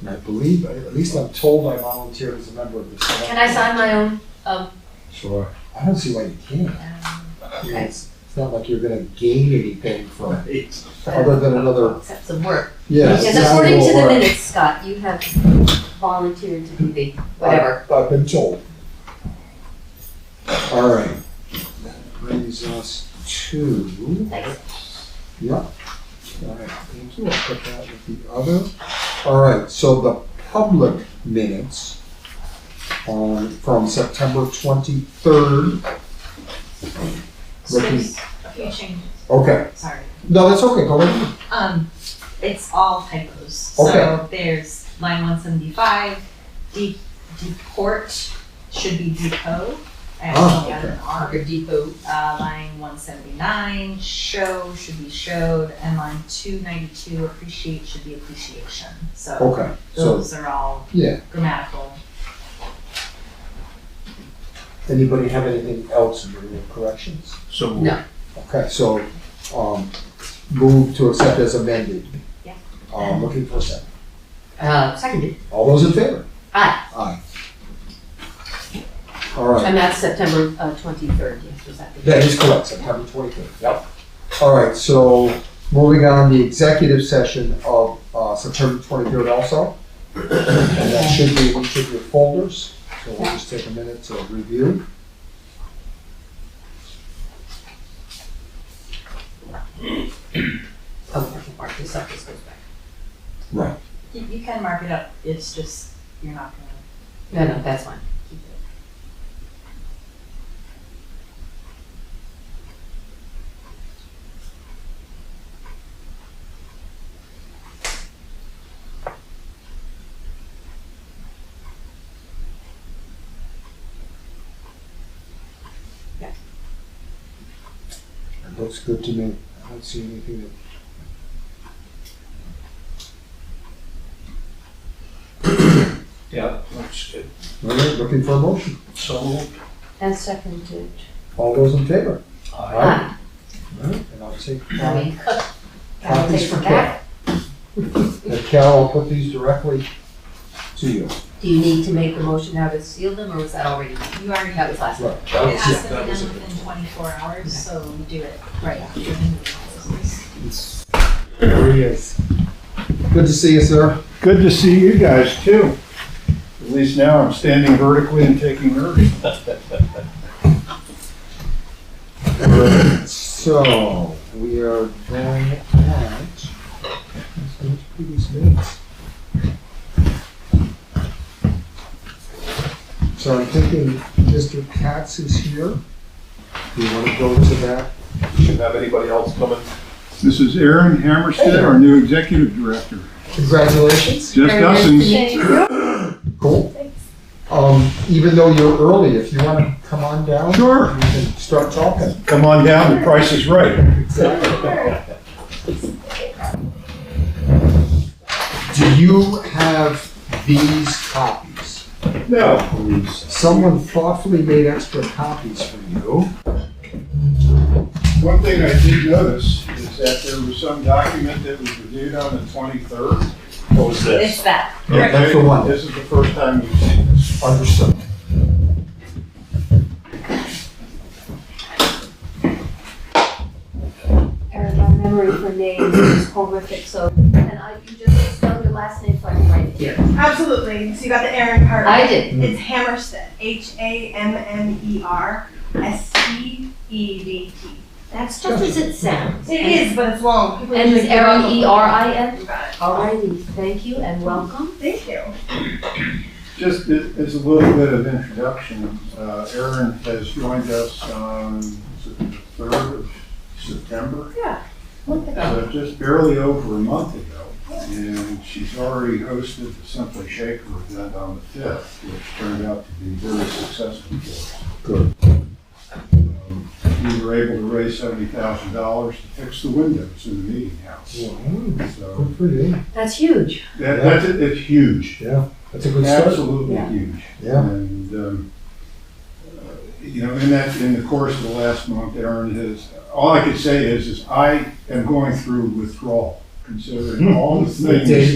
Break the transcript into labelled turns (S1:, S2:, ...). S1: And I believe, at least I'm told I volunteered as a member of the.
S2: Can I sign my own? Um,
S1: Sure. I don't see why you can't. I mean, It's it's not like you're gonna gain anything from,
S3: Right.
S1: other than another,
S2: Except some work.
S1: yeah.
S2: Because
S1: it's not
S2: according to
S1: gonna
S2: the
S1: work.
S2: minutes, Scott, you have volunteered to do the whatever.
S1: I've- I've been told. All right. That brings us to.
S2: Thanks.
S1: Yeah. All right, thank you. I'll put that with the other. All right, so the public minutes on, from September twenty-third.
S4: So
S1: Ricky.
S4: there's a few changes,
S1: Okay,
S4: sorry.
S1: no, that's okay, go ahead.
S4: Um, it's all typos. So
S1: Okay.
S4: there's line one seventy-five, de- deport should be depot. I
S1: Ah,
S4: actually got an R for depot. Uh, line one seventy-nine, show should be showed, and line two ninety-two, appreciate should be appreciation. So
S1: Okay, so,
S4: those are all
S1: yeah,
S4: grammatical.
S1: anybody have anything else in the corrections?
S3: So
S2: No.
S1: Okay, so, um, move to accept as amended.
S4: Yeah.
S1: Um, looking for a second.
S2: Uh, seconded.
S1: All those in favor?
S2: Aye.
S1: Aye. All right,
S2: And that's September uh, 23rd, yes, was that the
S1: that is correct, September twenty-third. Yep. All right, so moving on, the executive session of, uh, September twenty-third also. And that should be in each of your folders, so we'll just take a minute to review.
S2: Oh, I can mark this up, this goes back.
S1: Right.
S4: You, you can mark it up, it's just, you're not gonna
S2: No, no, that's fine.
S4: keep it.
S1: It looks good to me. I don't see anything that.
S3: Yeah, that's good.
S1: All right, looking for a motion.
S3: So moved.
S2: And seconded.
S1: All those in favor?
S3: Aye.
S2: Aye.
S1: All right, And I'll take.
S2: I mean, I'll
S1: Copies
S2: take
S1: for
S2: it back.
S1: uh, And Carol, I'll put these directly to you.
S2: Do you need to make a motion now to seal them, or was that already,
S4: You already
S2: that was last?
S1: Right.
S3: That
S4: It
S3: was
S4: has
S3: it,
S4: to be
S3: Oh, that
S4: done
S3: was it.
S4: within twenty-four hours, so we do it right after. the new policies.
S1: There he is. Good to see you, sir.
S5: Good to see you guys too. At least now I'm standing vertically and taking Irving.
S1: So, we are going at. let's go through these minutes. So I'm thinking Mr. Katz is here. Do you want to go to that?
S6: Shouldn't have anybody else coming.
S5: This is Aaron Hammerstead, our new executive director.
S1: Congratulations.
S5: Just us and
S1: Cool. Um, even though you're early, if you want to come on down, we
S5: Sure,
S1: can start talking.
S5: come on down, the price is right.
S1: Do you have these copies?
S5: No,
S1: Someone thoughtfully made extra copies for you.
S5: one thing I did notice is that there was some document that was reviewed on the 23rd.
S6: What was
S4: It's that.
S1: Yeah, that's the one.
S5: This is the first time you've seen this.
S1: Understood.
S2: Erin, my memory for names is horrific, so, and I, you just spelled your last name, so I can write it here.
S7: Absolutely. So you got the Aaron part.
S2: I did.
S7: It's Hammerstead. H A M M E R S T E D T.
S2: That's just as it sounds.
S7: It is, but it's long. People
S2: And it's
S7: usually
S2: Erin,
S7: don't.
S2: E R I N?
S7: You got it.
S2: All righty, thank you and welcome.
S7: Thank you.
S5: Just a- as a little bit of introduction, uh, Aaron has joined us on the 3rd of September. So just barely over a month ago, and she's already hosted the Simply Shaker event on the fifth, which turned out to be very successful for us. Um, We were able to raise seventy thousand dollars to fix the windows in the meeting house.
S1: Wow,
S5: So
S1: Good for you.
S2: That's huge.
S5: that, that's, it's huge,
S1: Yeah, that's a good start.
S5: absolutely
S2: Yeah.
S5: huge.
S1: Yeah.
S5: And, um, uh, you know, in that, in the course of the last month, Aaron has, all I could say is, is I am going through withdrawal, considering all the things.
S1: Day to